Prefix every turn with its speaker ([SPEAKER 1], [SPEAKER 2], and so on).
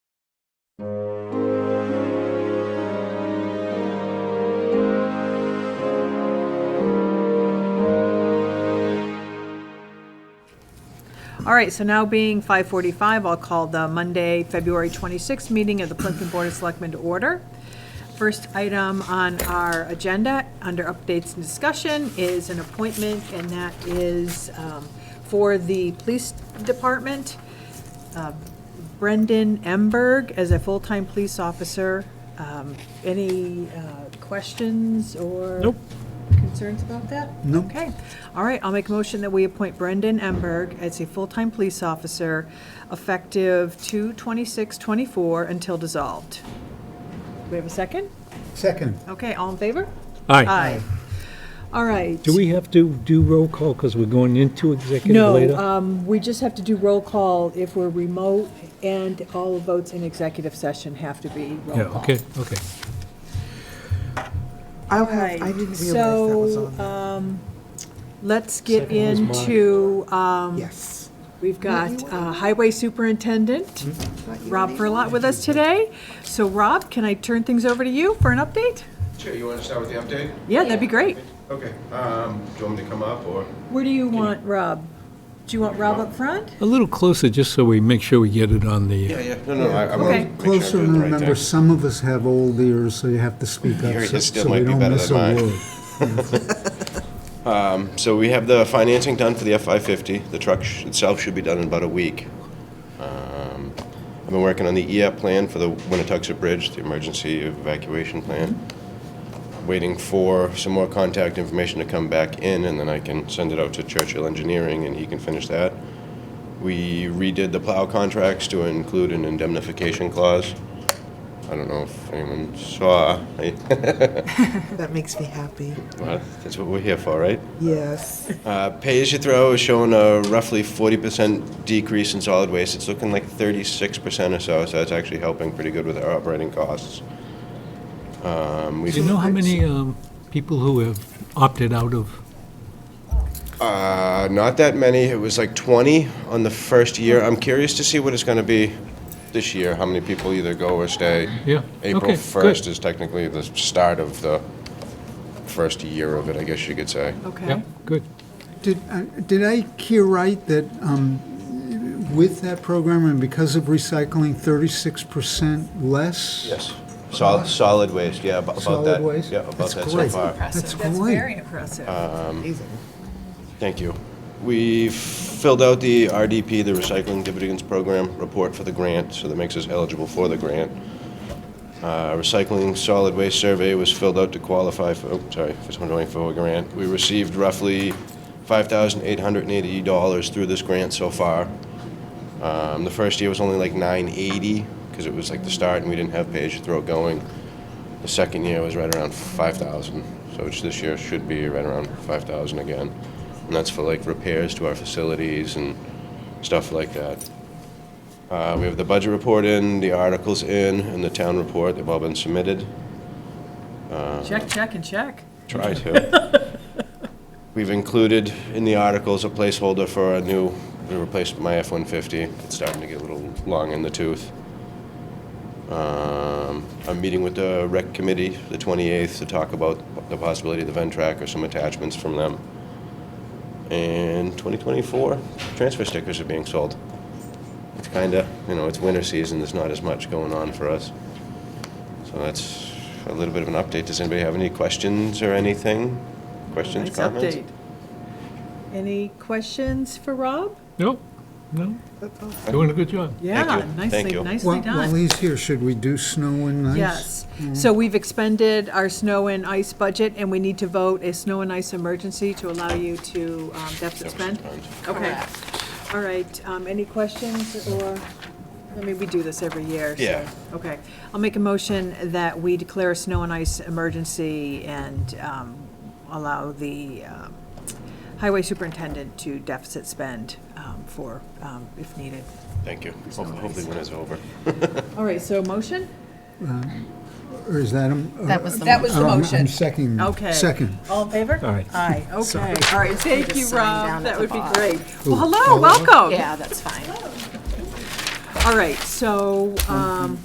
[SPEAKER 1] All right, so now being 5:45, I'll call the Monday, February 26th meeting of the Plimpton Board of Selectmen to order. First item on our agenda, under updates and discussion, is an appointment, and that is um, for the Police Department. uh, Brendan Emberg as a full-time police officer. Um, Any uh, questions or?
[SPEAKER 2] Nope.
[SPEAKER 1] Concerns about that?
[SPEAKER 2] No.
[SPEAKER 1] Okay. All right, I'll make a motion that we appoint Brendan Emberg as a full-time police officer effective 2/26/24 until dissolved. Do we have a second?
[SPEAKER 3] Second.
[SPEAKER 1] Okay, all in favor?
[SPEAKER 2] Aye.
[SPEAKER 1] All right.
[SPEAKER 2] Do we have to do roll call because we're going into executive
[SPEAKER 1] No,
[SPEAKER 2] later?
[SPEAKER 1] um, we just have to do roll call if we're remote, and all votes in executive session have to be roll
[SPEAKER 2] Yeah,
[SPEAKER 1] call.
[SPEAKER 2] okay, okay.
[SPEAKER 3] I'll
[SPEAKER 1] All
[SPEAKER 3] have, I
[SPEAKER 1] right,
[SPEAKER 3] didn't realize that was
[SPEAKER 1] so,
[SPEAKER 3] on there.
[SPEAKER 1] um, let's get
[SPEAKER 2] Second was mine.
[SPEAKER 1] into, um,
[SPEAKER 3] Yes.
[SPEAKER 1] we've got uh, Highway Superintendent
[SPEAKER 2] Hmm?
[SPEAKER 1] Rob Furlot with us today. So Rob, can I turn things over to you for an update?
[SPEAKER 4] Sure, you want to start with the update?
[SPEAKER 1] Yeah, that'd be great.
[SPEAKER 4] Okay, um, do you want me to come up or?
[SPEAKER 1] Where do you want Rob? Do you want Rob up front?
[SPEAKER 2] A little closer, just so we make sure we get it on the,
[SPEAKER 4] yeah, no, no, I, I
[SPEAKER 1] wanna Okay.
[SPEAKER 3] Closer, and remember, some of us have old ears, so you have to speak up,
[SPEAKER 4] Your
[SPEAKER 3] so
[SPEAKER 4] hit still
[SPEAKER 3] so we
[SPEAKER 4] might be
[SPEAKER 3] don't
[SPEAKER 4] better
[SPEAKER 3] miss a
[SPEAKER 4] than mine.
[SPEAKER 3] word.
[SPEAKER 4] So we have the financing done for the F-550. The truck sh- itself should be done in about a week. Um, I've been working on the EAP plan for the Winnetoxer Bridge, the emergency evacuation plan. Waiting for some more contact information to come back in, and then I can send it out to Churchill Engineering, and he can finish that. We redid the plow contracts to include an indemnification clause. I don't know if anyone saw. I-
[SPEAKER 5] That makes me happy.
[SPEAKER 4] Well, That's what we're here for, right?
[SPEAKER 5] Yes.
[SPEAKER 4] Uh, Pay as you throw is showing a roughly 40% decrease in solid waste. It's looking like 36% or so, so that's actually helping pretty good with our operating costs. Um,
[SPEAKER 2] do you
[SPEAKER 4] we've,
[SPEAKER 2] know how many um, people who have opted out of?
[SPEAKER 4] uh, not that many. It was like 20 on the first year. I'm curious to see what it's going to be this year, how many people either go or stay.
[SPEAKER 2] Yeah,
[SPEAKER 4] April
[SPEAKER 2] okay,
[SPEAKER 4] 1st
[SPEAKER 2] good.
[SPEAKER 4] is technically the start of the first year of it, I guess you could say.
[SPEAKER 2] Yeah,
[SPEAKER 1] Okay.
[SPEAKER 2] good.
[SPEAKER 3] Did, uh, did I hear right that um, with that program and because of recycling, 36% less?
[SPEAKER 4] Yes. Solid, solid waste, yeah, about about
[SPEAKER 3] Solid
[SPEAKER 4] that.
[SPEAKER 3] waste?
[SPEAKER 4] Yeah, about
[SPEAKER 3] That's
[SPEAKER 4] that so
[SPEAKER 3] great.
[SPEAKER 4] far.
[SPEAKER 1] That's
[SPEAKER 3] That's great.
[SPEAKER 1] very impressive.
[SPEAKER 2] Uh,
[SPEAKER 5] Amazing.
[SPEAKER 4] Thank you. We've filled out the RDP, the Recycling Dividends Program report for the grant, so that makes us eligible for the grant. Uh, Recycling solid waste survey was filled out to qualify for, oh, sorry, for 2024 grant. We received roughly $5,880 through this grant so far. Um, The first year was only like 980, because it was like the start and we didn't have pay-as-you-throw going. The second year was right around 5,000, so which this year should be right around 5,000 again. And that's for like repairs to our facilities and stuff like that. Uh, We have the budget report in, the articles in, and the town report, they've all been submitted.
[SPEAKER 1] Check, check, and check.
[SPEAKER 4] Try to. We've included in the articles a placeholder for a new, we replaced my F-150. It's starting to get a little long in the tooth. Um, I'm meeting with the rec committee the 28th to talk about the possibility of the Ventrac or some attachments from them. And 2024, transfer stickers are being sold. It's kinda, you know, it's winter season, there's not as much going on for us. So that's a little bit of an update. Does anybody have any questions or anything? Questions,
[SPEAKER 1] Nice
[SPEAKER 4] comments?
[SPEAKER 1] update. Any questions for Rob?
[SPEAKER 2] No, no,
[SPEAKER 5] That's awesome.
[SPEAKER 2] doing a good job.
[SPEAKER 1] Yeah,
[SPEAKER 4] you. Thank
[SPEAKER 1] nicely,
[SPEAKER 4] you.
[SPEAKER 1] nicely
[SPEAKER 3] While while
[SPEAKER 1] done.
[SPEAKER 3] he's here, should we do snow and ice?
[SPEAKER 1] Yes. So we've expended our snow and ice budget, and we need to vote a snow and ice emergency to allow you to um, deficit spend? Okay. All right, um, any questions or, I mean, we do this every year, so-
[SPEAKER 4] Yeah.
[SPEAKER 1] Okay. I'll make a motion that we declare a snow and ice emergency and um, allow the um, highway superintendent to deficit spend um, for, um, if needed.
[SPEAKER 4] Thank you. Hope- Hopefully when it's over.
[SPEAKER 1] All right, so motion?
[SPEAKER 3] Or is that a?
[SPEAKER 5] That was the
[SPEAKER 1] That was the motion.
[SPEAKER 3] I'm seconding.
[SPEAKER 1] Okay.
[SPEAKER 3] Second.
[SPEAKER 1] All in favor?
[SPEAKER 2] Aye.
[SPEAKER 1] Aye, okay. All right, thank
[SPEAKER 5] just
[SPEAKER 1] you,
[SPEAKER 5] sign
[SPEAKER 1] Rob.
[SPEAKER 5] down
[SPEAKER 1] That
[SPEAKER 5] at
[SPEAKER 1] would
[SPEAKER 5] the
[SPEAKER 1] be
[SPEAKER 5] bottom.
[SPEAKER 1] great. Well, hello, welcome.
[SPEAKER 5] Yeah, that's fine.
[SPEAKER 1] All right, so, um,